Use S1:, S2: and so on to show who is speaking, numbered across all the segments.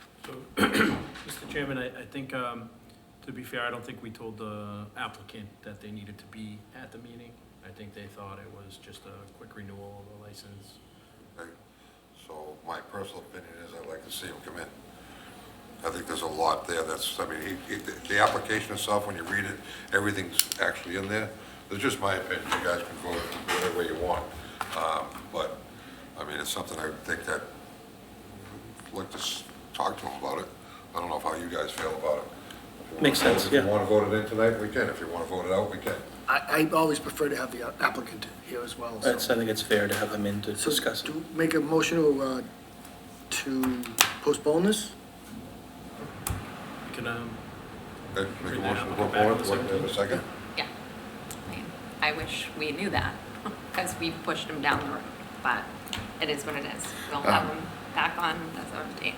S1: Mr. Chairman, I, I think, um, to be fair, I don't think we told the applicant that they needed to be at the meeting. I think they thought it was just a quick renewal of the license.
S2: Okay. So my personal opinion is I'd like to see him come in. I think there's a lot there that's, I mean, he- he- the application itself, when you read it, everything's actually in there. It's just my opinion, you guys can vote whatever way you want. Um, But, I mean, it's something I think that, I'd like to s- talk to him about it. I don't know how you guys feel about it. If you wanna
S3: Makes sense,
S2: vote- If
S3: yeah.
S2: you want to vote it in tonight, we can. If you want to vote it out, we can.
S4: I, I always prefer to have the uh, applicant here as well, so.
S3: It's- I think it's fair to have them in to
S4: So
S3: discuss it.
S4: Do make a motion to, uh, to postpone this?
S1: We Can, um,
S2: Okay, Make a
S1: Bring the
S2: motion to go
S1: applicant back on
S2: forward.
S1: the
S2: Wait, wait a second.
S5: Yeah. I mean, I wish we knew that, because we pushed him down the road, but it is what it is. We'll have him back on as of date.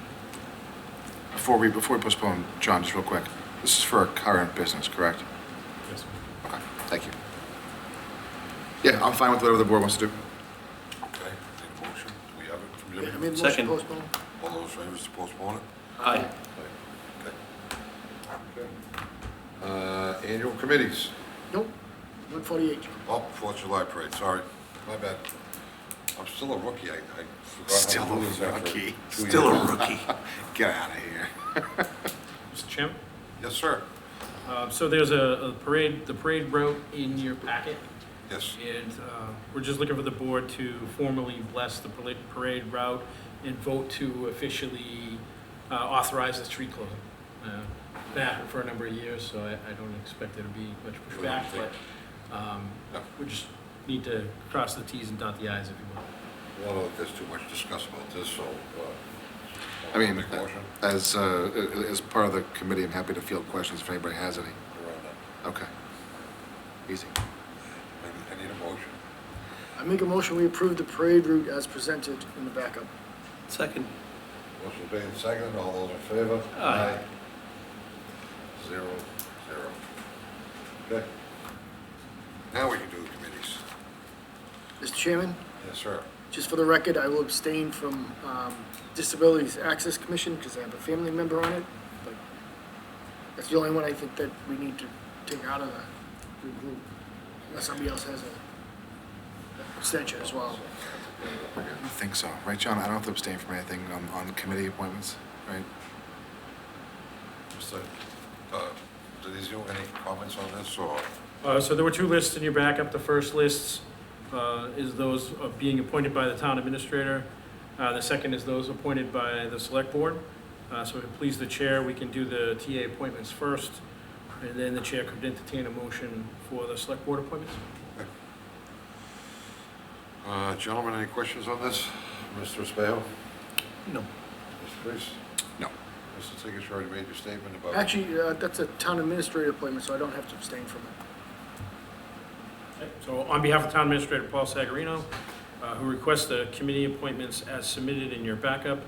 S6: Before we, before we postpone, John, just real quick, this is for our current business, correct?
S1: yes,
S6: Okay, thank you. Yeah, I'm fine with whatever the board wants to do.
S2: Okay, need a motion? Do we have it from
S4: Yeah, I
S2: Jimmy?
S4: made a motion
S3: Second.
S4: to postpone.
S2: All those favors to postpone it?
S3: Aye.
S2: Okay. Uh, Annual committees,
S4: Nope, one forty-eight.
S2: oh, Fourth of July parade, sorry, my bad. I'm still a rookie, I I forgot.
S6: Still
S2: how to
S6: a
S2: do this after
S6: rookie,
S2: two years.
S6: still a rookie. Get out of here.
S1: Mr. Chairman?
S2: Yes, sir,
S1: Uh, so there's a, a parade, the parade route in your packet,
S2: yes,
S1: and, uh, we're just looking for the board to formally bless the parade- parade route and vote to officially, uh, authorize the street closing. Uh, That happened for a number of years, so I, I don't expect there to be much pushback, but, um,
S2: No.
S1: we just need to cross the Ts and dot the Is if you want.
S2: I don't think there's too much to discuss about this, so. uh,
S6: I mean,
S2: Make a motion.
S6: as, uh, as part of the committee, I'm happy to field questions if anybody has any.
S2: We're on that.
S6: Okay. Easy.
S2: uh, I need- I need a motion,
S4: I make a motion, we approve the parade route as presented in the backup.
S3: Second.
S2: motion being seconded, all those in favor?
S3: Aye.
S2: Zero, zero. Okay. Now we can do the committees,
S4: Mr. Chairman,
S2: yes, sir.
S4: just for the record, I will abstain from, um, Disabilities Access Commission because I have a family member on it, but that's the only one I think that we need to take out of the group, unless somebody else has a abstention as well.
S6: I think so, right, John? I don't have to abstain from anything on, on committee appointments, right?
S2: Mr. uh, Denizio, any comments on this, or?
S1: Uh, So there were two lists in your backup. The first list uh, is those of being appointed by the town administrator. Uh, The second is those appointed by the select board. Uh, So if it please the chair, we can do the TA appointments first, and then the chair could entertain a motion for the select board appointments.
S2: Uh, Gentlemen, any questions on this? Mr. Spail?
S3: No.
S2: Mr. Priest?
S6: No.
S2: Mr. Tigas, you already made your statement about...
S4: Actually, uh, that's a town administrator appointment, so I don't have to abstain from it.
S1: Okay, So on behalf of Town Administrator Paul Sagarino, uh, who requests the committee appointments as submitted in your backup,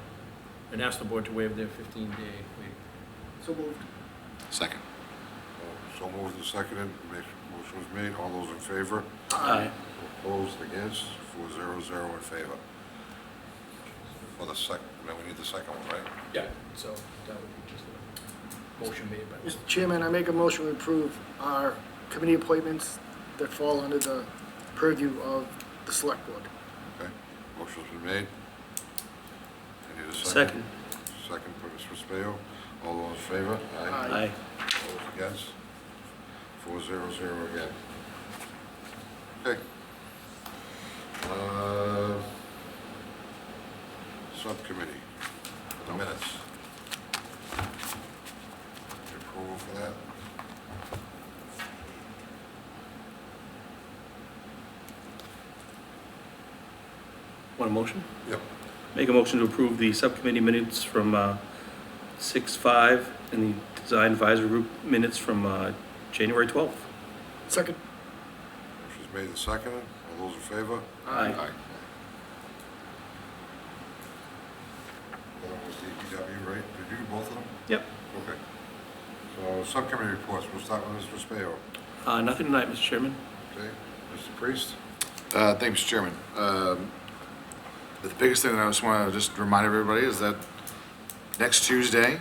S1: and ask the board to waive their 15-day wait.
S4: So moved.
S6: Second.
S2: uh, So moved and seconded, Ma- motion was made, all those in favor?
S3: Aye.
S2: Opposed, against, four zero zero in favor. For the sec, now we need the second one, right?
S1: Yeah. So that would be just a motion made by Mr.
S4: Mr. Chairman, I make a motion to approve our committee appointments that fall under the purview of the select board.
S2: Okay, motion's been made. I need a second.
S3: Second.
S2: Second for Mr. Spail, all those in favor?
S4: Aye.
S3: Aye.
S2: Opposed, against? Four zero zero again. Okay. Uh, Subcommittee, the minutes. Approval for that?
S3: Want a motion?
S2: Yep.
S3: Make a motion to approve the subcommittee minutes from uh, 6/5 and the design advisory group minutes from uh, January 12th.
S4: Second.
S2: Motion's made and seconded, all those in favor?
S3: Aye.
S2: That was DPW, right? Did you do both of them?
S3: Yep.
S2: Okay. So subcommittee reports, we'll start with Mr. Spail,
S3: Uh, Nothing tonight, Mr. Chairman.
S2: okay? Mr. Priest?
S6: Uh, Thank you, Mr. Chairman. Um, The biggest thing that I just want to just remind everybody is that next Tuesday,